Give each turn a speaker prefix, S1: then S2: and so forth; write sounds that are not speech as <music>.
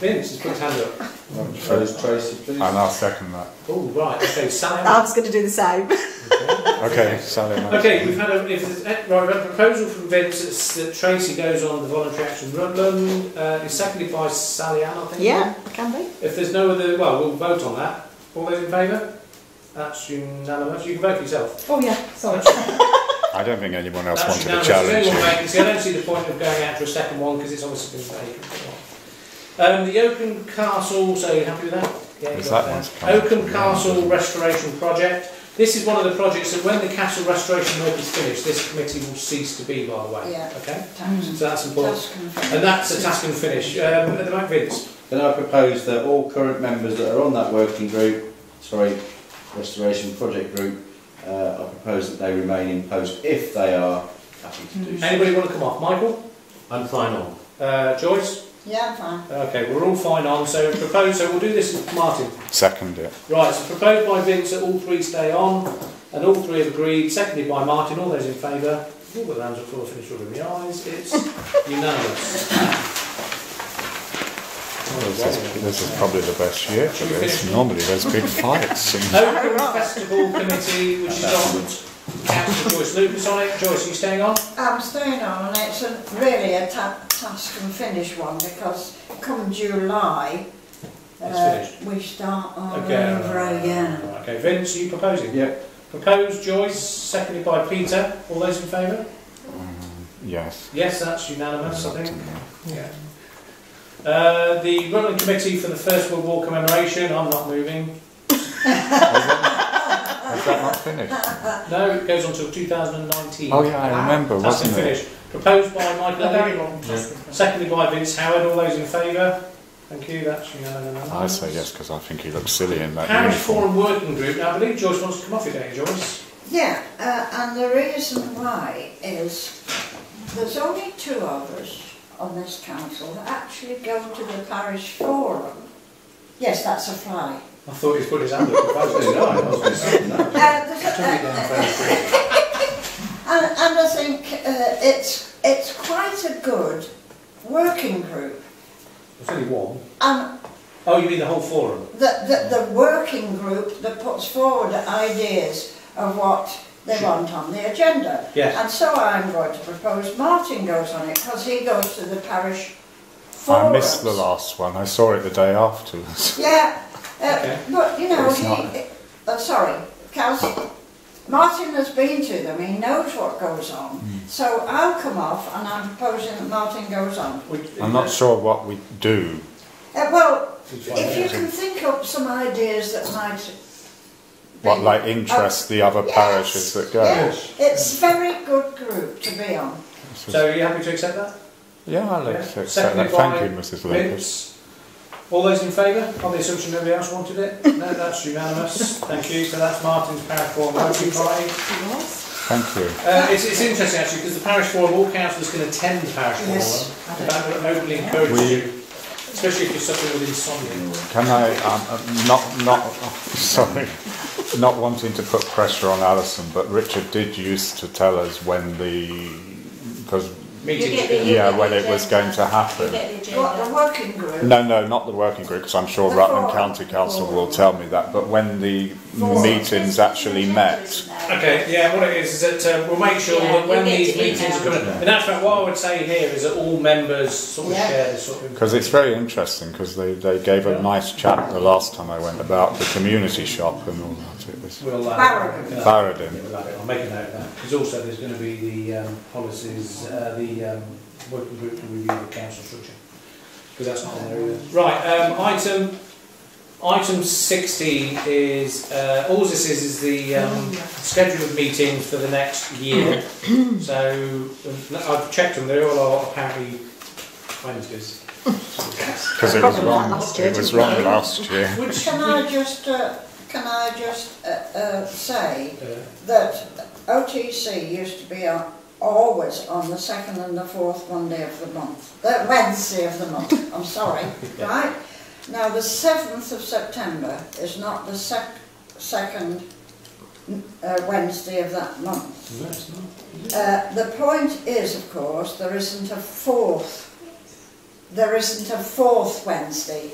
S1: Vince has put his hand up.
S2: Tracy, Tracy, please.
S3: And I'll second that.
S1: Oh, right,
S4: <laughs>
S1: okay, Sally.
S4: I was going to do the same.
S3: Okay, Sally. Mann.
S1: Okay, we've had a, if there's, eh, right, we've had a proposal from Vince that's- that Tracy goes on the voluntary action Rutland, uh, is seconded by Sally Ann, I think.
S4: yeah, can be.
S1: If there's no other, well, we'll vote on that. All those in favour? That's unanimous. You can vote for yourself.
S4: Oh yeah, sorry.
S3: I don't think anyone else
S1: That's unanimous.
S3: wanted a
S1: If
S3: challenge.
S1: anyone vacancy, I don't see the point of going out for a second one because it's obviously been vacant for a while. Um, the Oakham Castle, so you happy with that? Yeah, you
S3: Yes,
S1: got
S3: that one's come up
S1: Oakham
S3: from the
S1: Castle
S3: end.
S1: Restoration Project. This is one of the projects that when the castle restoration work is finished, this committee will cease to be, by the way.
S5: Yeah.
S1: Okay?
S5: Tax-
S1: So that's important.
S5: tax control.
S1: And that's a task and finish. Um, at the back, Vince.
S2: Then I propose that all current members that are on that working group, sorry, restoration project group, uh, I propose that they remain in post if they are happy to do so.
S1: Anybody want to come off? Michael?
S6: I'm fine on.
S1: Uh, Joyce?
S5: Yeah, I'm fine.
S1: Okay, we're all fine on, so proposed, so we'll do this, Martin.
S3: Second it.
S1: Right, so proposed by Vince that all three stay on, and all three have agreed, seconded by Martin, all those in favour. All the hands are full of finished rubbing the eyes, it's unanimous.
S3: This is, this is probably the best year for this. Normally there's big fights. And
S1: Open Festival Committee, which is on, councillor Joyce Lucas on it, Joyce, are you staying on?
S5: I'm staying on and it's a, really a ta- task and finish one because come July, uh,
S1: It's
S5: we start all
S1: Okay,
S5: over again.
S1: Right, Okay, Vince, are you proposing?
S2: Yep,
S1: Proposed, Joyce, seconded by Peter, all those in favour?
S3: yes.
S1: Yes, that's unanimous, I think. Yeah. Uh, the Rutland Committee for the First World War commemoration, I'm not moving.
S3: Is that not finished?
S1: No, it goes on till 2019.
S3: Oh yeah, I remember,
S1: That's
S3: wasn't it?
S1: finished. Proposed by Michael
S4: A very
S1: Elliott,
S4: long task.
S1: seconded by Vince Howard. All those in favour? Thank you, that's unanimous.
S3: I say yes because I think he looks silly in that
S1: Parish
S3: uniform.
S1: Forum Working Group. Now, I believe Joyce wants to come off it, don't you, Joyce?
S5: Yeah, uh, and the reason why is there's only two of us on this council that actually go to the parish forum. Yes, that's a fly.
S1: I thought he's put his hand
S3: <laughs>
S1: up.
S2: I was going to die, I was going to say
S5: Uh,
S2: that.
S5: there's a- And, and I think uh, it's, it's quite a good working group.
S1: There's only one.
S5: And
S1: Oh, you mean the whole forum?
S5: the, the, the working group that puts forward ideas of what they want on the agenda.
S1: Yes.
S5: And so I'm going to propose Martin goes on it because he goes to the parish forums.
S3: I missed the last one. I saw it the day afterwards.
S5: Yeah, uh,
S1: Okay.
S5: but you know,
S3: It's
S5: he,
S3: not-
S5: uh, sorry, Kelsey, Martin has been to them, he knows what goes on.
S3: Hmm.
S5: So I'll come off and I'm proposing that Martin goes on.
S1: We,
S3: I'm not sure what we do.
S5: Uh, well,
S1: It's fine,
S5: if you
S1: isn't
S5: can think up some ideas that might.
S3: What
S5: be-
S1: Oh,
S3: like interests the other
S5: Yes,
S3: parishes that go.
S5: yeah. It's very good group to be on.
S1: So, are you happy to accept that?
S3: Yeah, I
S1: Yeah.
S3: look so
S1: Seconded
S3: excited. Thank
S1: by
S3: you, Mrs. Lucas.
S1: Vince. All those in favour, on the assumption nobody else wanted it? No, that's unanimous. Thank you. So that's Martin's parish forum working party.
S3: Thank you.
S1: Uh, it's, it's interesting actually because the parish forum, all councillors can attend the parish forum.
S5: Yes.
S1: And That would openly encourage
S3: We-
S1: you, especially if you're suffering with insomnia.
S3: Can I, um, uh, not, not,
S4: <laughs>
S3: sorry, not wanting to put pressure on Alison, but Richard did used to tell us when the, because,
S1: Meetings.
S3: yeah, when it was going to happen.
S5: What, the working group?
S3: No, no, not the working group, because I'm sure
S5: The
S3: Rutland
S5: forum.
S3: County Council will tell me that, but when the
S5: Forum.
S3: meetings actually met.
S1: Okay, yeah, what it is is that um, we'll make sure
S7: Yeah,
S1: that when
S7: you'll get
S1: these
S7: to email.
S1: meetings are coming, in actual fact, what I would say here is that all members sort of
S5: Yeah.
S1: share this sort of
S3: Because it's very interesting, because they, they gave a nice chat the last time I went about the community shop and all that. It was
S1: We'll, uh,
S5: Barrow.
S1: uh,
S3: Barradin.
S1: I'll make a note of that, because also there's going to be the um, policies, uh, the um, working group to review the council structure, because that's not on there either. Right, um, item, item 60 is, uh, all this is, is the um, schedule of meetings for the next year. So, um, I've checked them, they all are apparently Wednesdays.
S3: Because it was
S4: Probably not
S3: wrong,
S4: last year,
S3: it was
S4: didn't we?
S3: wrong last year.
S1: Which,
S5: Can I just, uh, can I just uh, uh, say
S1: uh,
S5: that OTC used to be on, always on the second and the fourth Monday of the month, the Wednesday of the month, I'm sorry, right? Now, the 7th of September is not the sec- second uh, Wednesday of that month.
S1: no, it's not.
S5: Uh, the point is, of course, there isn't a fourth there isn't a fourth Wednesday